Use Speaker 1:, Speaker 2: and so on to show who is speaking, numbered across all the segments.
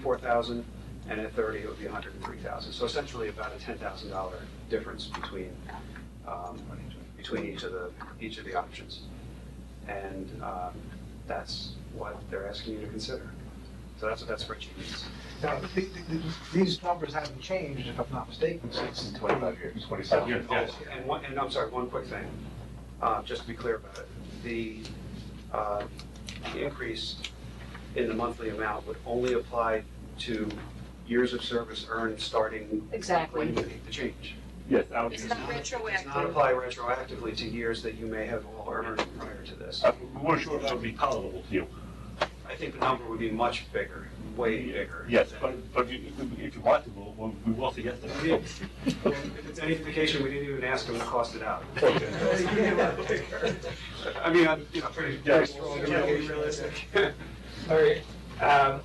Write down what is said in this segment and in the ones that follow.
Speaker 1: four thousand, and at thirty, it would be a hundred and three thousand. So essentially about a ten thousand dollar difference between, um, between each of the, each of the options. And, um, that's what they're asking you to consider. So that's what that spreadsheet means.
Speaker 2: Now, th- th- th- these numbers haven't changed, if I'm not mistaken, since 25 years.
Speaker 3: 25 years, yes.
Speaker 1: Oh, And one, and I'm sorry, one quick thing, uh, just to be clear about it. The, uh, the increase in the monthly amount would only apply to years of service earned starting when you
Speaker 4: Exactly.
Speaker 1: make the change.
Speaker 3: Yes, I would,
Speaker 4: It's not
Speaker 1: Does not
Speaker 4: retroactive.
Speaker 1: apply retroactively to years that you may have all earned prior to this.
Speaker 3: I- Uh, we weren't sure if that would be palatable to you.
Speaker 1: I think the number would be much bigger, way bigger.
Speaker 3: Yes, but, but you- if if you want to, we'll- we'll, we will suggest
Speaker 1: Yeah.
Speaker 3: that.
Speaker 1: If it's any indication, we didn't even ask them to cost it out. I mean, I'm, you know, pretty, pretty
Speaker 3: Yes.
Speaker 1: strong,
Speaker 2: Yeah.
Speaker 1: pretty realistic.
Speaker 3: Uh,
Speaker 2: All right, um,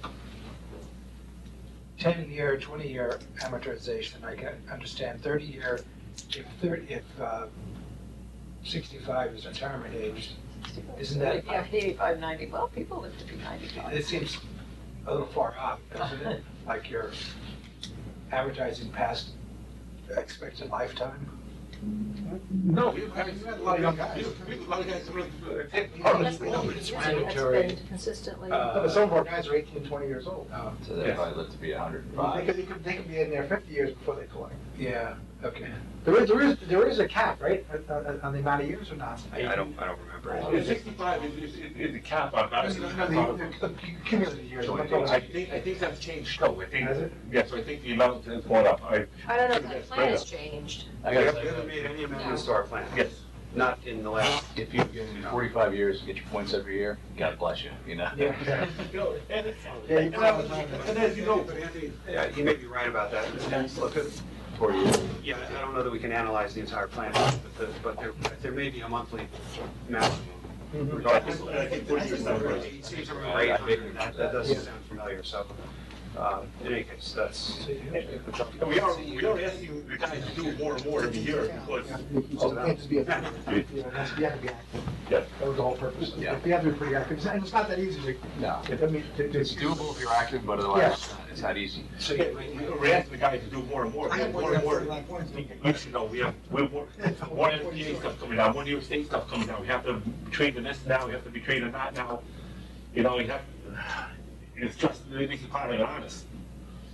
Speaker 2: 10-year, 20-year amortization, I can understand, 30-year, if 30, if uh, 65 is retirement age, isn't that,
Speaker 5: Yeah, eighty-five, ninety, well, people live to be ninety-five.
Speaker 2: it seems a little far off, doesn't it? Like you're advertising past expected lifetime?
Speaker 3: No, we, I mean,
Speaker 2: you had a lot of young guys.
Speaker 3: we- we- a lot of guys were- were-
Speaker 5: That's the
Speaker 2: No,
Speaker 5: only
Speaker 2: but it's
Speaker 5: reason that's
Speaker 2: mandatory.
Speaker 5: been consistently.
Speaker 2: No,
Speaker 1: Uh,
Speaker 2: but Some of our guys are 18, 20 years old.
Speaker 6: So they
Speaker 3: Yes.
Speaker 6: probably lived to be hundred and
Speaker 2: They could,
Speaker 6: five.
Speaker 2: they could, they could be in there fifty years before they collect. Yeah, okay. There is, there is, there is a cap, right, on- on, on the amount of years or not?
Speaker 1: I I don't, I don't remember.
Speaker 3: It's Sixty-five is, is, is the cap, I'm not.
Speaker 2: No, no, the- the Cumulative years. I'm talking
Speaker 3: I
Speaker 2: about-
Speaker 3: think, I think that's changed, though, I think,
Speaker 2: Has it?
Speaker 3: yes, I think the amount has gone up, I,
Speaker 4: I don't know if that plan has changed.
Speaker 6: I
Speaker 1: We
Speaker 6: gotta
Speaker 1: haven't we
Speaker 6: say,
Speaker 1: haven't made any amendments to our plan.
Speaker 3: yes.
Speaker 1: Not in the last,
Speaker 6: if you forty-five years, get your points every year, God bless you, you know?
Speaker 2: Yeah.
Speaker 3: No, and
Speaker 2: Yeah, you
Speaker 3: And I was- and as you know, but Anthony,
Speaker 1: yeah, you may be right about that. Look,
Speaker 6: Forty years.
Speaker 1: Yeah, I don't know that we can analyze the entire plan, but the- but there, there may be a monthly maximum.
Speaker 2: Mhm.
Speaker 3: regardless, I think forty years is not right.
Speaker 1: It seems around 800, that that doesn't sound familiar, so, uh, in any case, that's,
Speaker 3: And we are, we are asking the guys to do more and more every year, because
Speaker 2: So Oh, it has to be, a- you know, it has to be- you have to be active.
Speaker 3: Yeah.
Speaker 2: That was the whole purpose. You
Speaker 6: Yeah.
Speaker 2: have to be pretty active, and it's not that easy to,
Speaker 6: No,
Speaker 2: I mean, to, to.
Speaker 6: it's doable if you're active, but otherwise, it's not- it's not easy.
Speaker 2: So
Speaker 3: Yeah,
Speaker 2: you-
Speaker 3: we- we- We're asking the guys to do more and more,
Speaker 2: I have
Speaker 3: more and
Speaker 2: one,
Speaker 3: more.
Speaker 2: like, one thing.
Speaker 3: We should know, we have, we're, more more NPA stuff coming down, more New York State stuff coming down, we have to be trained in this now, we have to be trained in that now. You know, you have, it's just, it makes you kind of honest,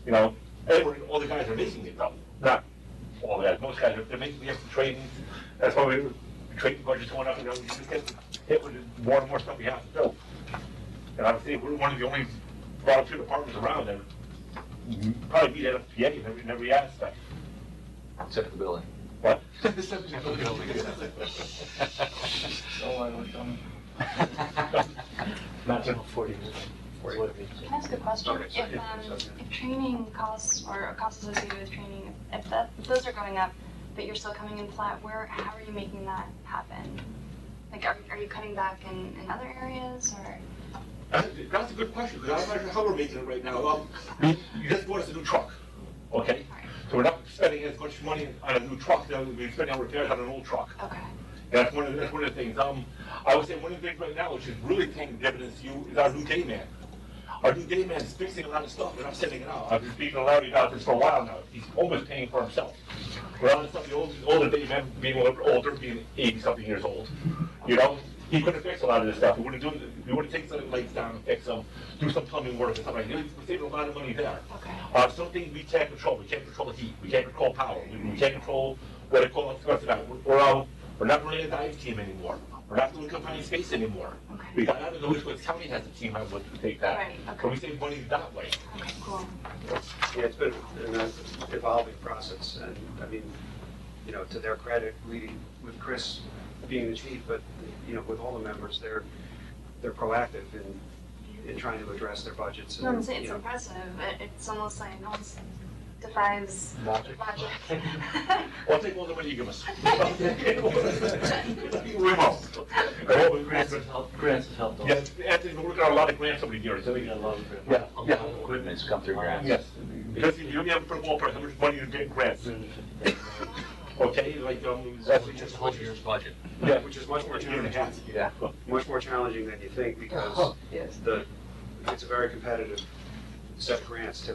Speaker 3: you know? Everyone, all the guys are making it though, not all the guys, most guys, are- they're making, we have to train, that's why we're, training budget's going up, you know, we just get hit with more and more stuff we have to do. And I would say we're one of the only volunteer departments around that probably beat NFPA in every, in every aspect.
Speaker 6: Except for the building.
Speaker 3: What?
Speaker 6: Maximum forty
Speaker 7: Can I ask a question?
Speaker 1: Okay, sorry.
Speaker 7: If, um, if training costs or costs associated with training, if that, if those are going up, but you're still coming in flat, where, how are you making that happen? Like, are, are you cutting back in, in other areas or?
Speaker 3: That's that's a good question, because I'm not sure how we're making it right now. Well, you just bought us a new truck, okay? So we're not spending as much money on a new truck that we've been spending on repairs on an old truck.
Speaker 7: Okay.
Speaker 3: That's one of, the- that's one of the things. Um, I would say one of the things right now, which is really paying dividends to you, is our new day man. Our new day man is fixing a lot of stuff, and I'm sending it out. I've been speaking to Larry about this for a while now. He's almost paying for himself. A lot of stuff, the old, older day man, being a little bit older, being eighty-something years old, you know, he couldn't fix a lot of this stuff. We wouldn't do, we wouldn't take some lights down and fix them, do some plumbing work and stuff like that. We're saving a lot of money there.
Speaker 7: Okay.
Speaker 3: Uh, some things we can't control. We can't control the heat. We can't control power. We, we can't control what it calls what's about. We're, we're, um, we're not really a dive team anymore. We're not doing confined space anymore.
Speaker 7: Okay.
Speaker 3: We got out of the Wishwood County has a team that would take that.
Speaker 7: Right, okay.
Speaker 3: But we save money that way.
Speaker 7: Okay, cool.
Speaker 1: yeah, it's been an evolving process, and, I mean, you know, to their credit, we, with Chris being the chief, but, you know, with all the members, they're, they're proactive in, in trying to address their budgets
Speaker 7: No, I'm
Speaker 1: and,
Speaker 7: saying
Speaker 1: you
Speaker 7: it's
Speaker 1: know.
Speaker 7: impressive. It, it's almost like, it almost defies
Speaker 2: Logic.
Speaker 7: logic.
Speaker 3: I'll take all the money you give us. We're out.
Speaker 8: Grants have helped, grants have helped.
Speaker 3: Yes, Anthony's been working on a lot of grants over the years.
Speaker 8: We got a lot of grants.
Speaker 3: Yeah, yeah.
Speaker 6: Equipment's come through grants.
Speaker 3: Yes, because you only have to put a wall price, how much money you get in grants, okay? Like, um, that's
Speaker 6: Just
Speaker 3: just
Speaker 6: a whole year's budget.
Speaker 3: Yeah.
Speaker 1: Which is much more
Speaker 3: Year and a
Speaker 1: challenging,
Speaker 3: half.
Speaker 6: Yeah.
Speaker 1: much more challenging than you think, because
Speaker 5: Yes.
Speaker 1: the, it's a very competitive accept grants typically